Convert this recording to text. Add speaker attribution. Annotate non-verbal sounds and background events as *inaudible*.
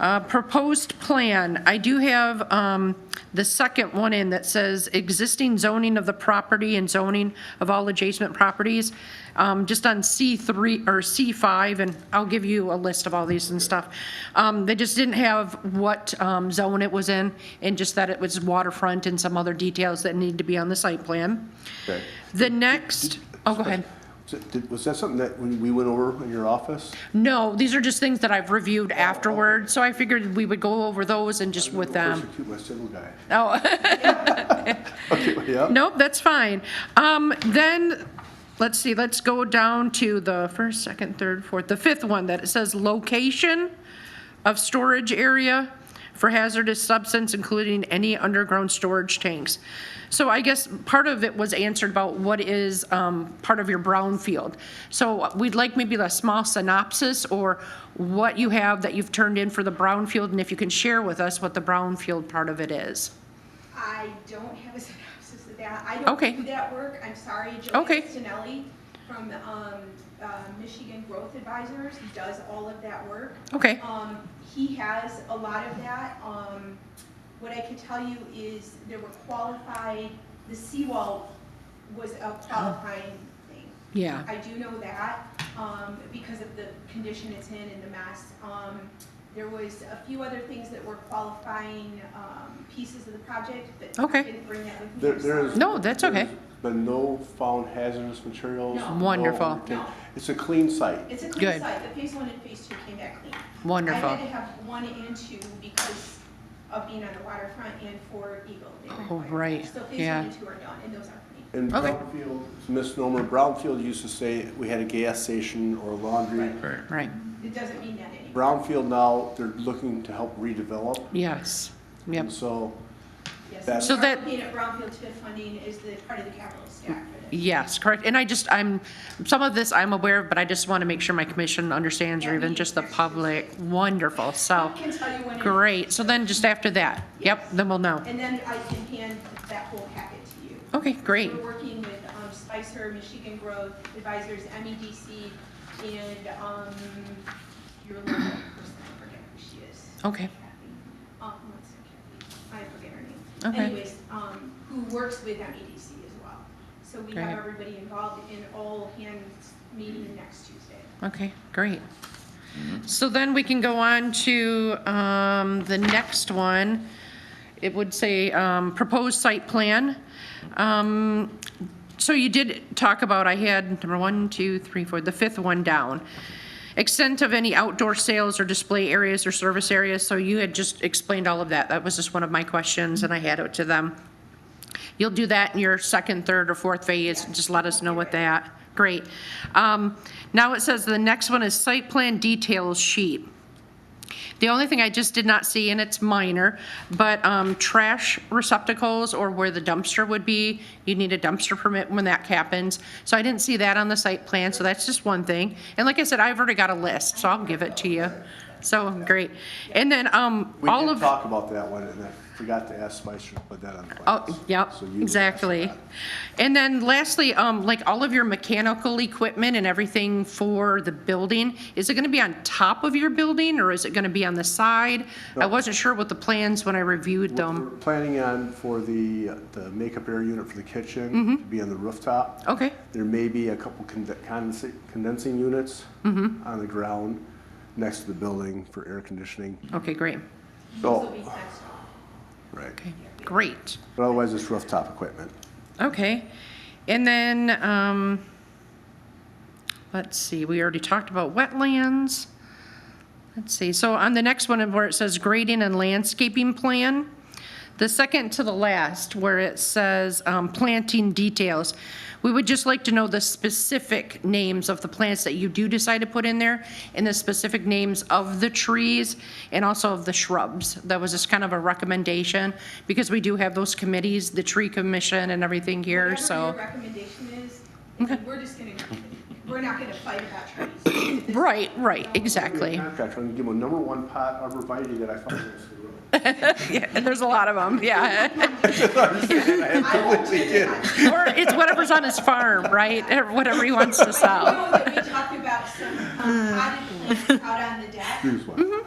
Speaker 1: Uh, Proposed plan, I do have um, the second one in that says existing zoning of the property and zoning of all adjacent properties, um, just on C3 or C5, and I'll give you a list of all these and stuff. Um, They just didn't have what um, zone it was in, and just that it was waterfront and some other details that need to be on the site plan.
Speaker 2: Okay.
Speaker 1: The next, oh, go ahead.
Speaker 2: So did- Was that something that when we went over in your office?
Speaker 1: No, these are just things that I've reviewed afterward, so I figured we would go over those and just with um, them.
Speaker 2: Persecute my civil guy. *laughs*
Speaker 1: Oh,
Speaker 2: Okay, yeah.
Speaker 1: nope, that's fine. Um, then, let's see, let's go down to the first, second, third, fourth, the fifth one that it says location of storage area for hazardous substance, including any underground storage tanks. So I guess part of it was answered about what is, um, part of your brownfield. So we'd like maybe a small synopsis or what you have that you've turned in for the brownfield and if you can share with us what the brownfield part of it is.
Speaker 3: I don't have a *laughs* synopsis of that. I don't
Speaker 1: Okay.
Speaker 3: do that work. I'm sorry. Joanne
Speaker 1: Okay.
Speaker 3: Sinelli from um, uh, Michigan Growth Advisors does all of that work.
Speaker 1: Okay.
Speaker 3: Um, He has a lot of that. Um, What I can tell you is there were qualified, the seawall was a qualifying thing.
Speaker 1: Yeah.
Speaker 3: I do know that, um, because of the condition it's in and the mess. Um, there was a few other things that were qualifying, um, pieces of the project, but I
Speaker 1: Okay.
Speaker 3: didn't bring that with me.
Speaker 2: There,
Speaker 3: I'm
Speaker 2: there is.
Speaker 3: sorry.
Speaker 1: No, that's okay.
Speaker 2: there's Been no found hazardous materials.
Speaker 3: No.
Speaker 2: no
Speaker 1: Wonderful.
Speaker 2: everything.
Speaker 3: No.
Speaker 2: It's a clean site.
Speaker 3: It's a
Speaker 1: Good.
Speaker 3: clean site, the phase one and phase two came back clean.
Speaker 1: Wonderful.
Speaker 3: I had to have one and two because of being on the waterfront and for Eagle. they
Speaker 1: Oh,
Speaker 3: require
Speaker 1: right,
Speaker 3: that. So phase
Speaker 1: yeah.
Speaker 3: one and two are done, and those are clean.
Speaker 2: And
Speaker 1: Okay.
Speaker 2: Brownfield, it's a misnomer, Brownfield used to say we had a gas station or laundry.
Speaker 1: Right,
Speaker 3: It doesn't mean that anymore.
Speaker 2: Brownfield now, they're looking to help redevelop.
Speaker 1: yes, yep.
Speaker 2: And so,
Speaker 3: Yes,
Speaker 2: That's-
Speaker 1: So that-
Speaker 3: Being at Brownfield TIF funding is the part of the capital stack for that.
Speaker 1: Yes, correct. And I just, I'm, some of this I'm aware of, but I just want to make sure my commission understands, or even just the public. Wonderful, so,
Speaker 3: I can tell you when. it-
Speaker 1: great. So then just after that, yep, then we'll know.
Speaker 3: And then I can hand that whole packet to you.
Speaker 1: Okay, great,
Speaker 3: We're working with um, Spicer, Michigan Growth Advisors, MEDC, and um, your local person, I forget who she is.
Speaker 1: Okay.
Speaker 3: Kathy. Um, what's her- Kathy? I forget her name.
Speaker 1: Okay.
Speaker 3: Anyways, um, who works with MEDC as well. So we
Speaker 1: Great.
Speaker 3: have everybody involved in all hands meeting next Tuesday.
Speaker 1: okay, great. So then we can go on to um, the next one. It would say um, proposed site plan. Um, So you did talk about, I had number one, two, three, four, the fifth one down. Extent of any outdoor sales or display areas or service areas, so you had just explained all of that. That was just one of my questions, and I had it to them. You'll do that in your second, third, or fourth phase, just let us know what that, great. Um, Now it says the next one is site plan details sheet. The only thing I just did not see, and it's minor, but um, trash receptacles or where the dumpster would be, you need a dumpster permit when that happens. So I didn't see that on the site plan, so that's just one thing. And like I said, I've already got a list, so I'll give it to you. So, great. And then um,
Speaker 2: we
Speaker 1: all
Speaker 2: did
Speaker 1: of.
Speaker 2: talk about that one, and I forgot to ask Spicer to put that on. the
Speaker 1: Oh,
Speaker 2: plans.
Speaker 1: yep,
Speaker 2: So you would ask
Speaker 1: exactly.
Speaker 2: that.
Speaker 1: And then lastly, um, like all of your mechanical equipment and everything for the building, is it gonna be on top of your building or is it gonna be on the side? I
Speaker 2: No.
Speaker 1: wasn't sure what the plans when I reviewed
Speaker 2: We're
Speaker 1: them.
Speaker 2: planning on for the, the makeup air unit for the kitchen to be on the rooftop.
Speaker 1: Okay,
Speaker 2: There may be a couple conde- condensi- condensing units on the ground next to the building for air conditioning.
Speaker 1: okay, great,
Speaker 3: Those
Speaker 2: So,
Speaker 3: will be fenced off.
Speaker 2: right,
Speaker 1: okay, great,
Speaker 2: but otherwise it's rooftop equipment.
Speaker 1: okay. And then, um, let's see, we already talked about wetlands. Let's see, so on the next one where it says grading and landscaping plan, the second to the last where it says um, planting details, we would just like to know the specific names of the plants that you do decide to put in there and the specific names of the trees and also of the shrubs. That was just kind of a recommendation because we do have those committees, the tree commission and everything here, so.
Speaker 3: Whatever your recommendation is, we're just gonna, we're not gonna fight
Speaker 1: *clears throat*
Speaker 3: about trees.
Speaker 1: Right, right, exactly.
Speaker 2: Contractor, I'm gonna give him a number one pot arborvitae that I found next to the road.
Speaker 1: Yeah, And there's a lot of them, yeah.
Speaker 3: I won't take it.
Speaker 1: Or it's whatever's on his farm, right? Or Whatever he wants to
Speaker 3: I *laughs*
Speaker 1: sell.
Speaker 3: know that we talked about some um, potted plants out on the deck.
Speaker 2: Here's one.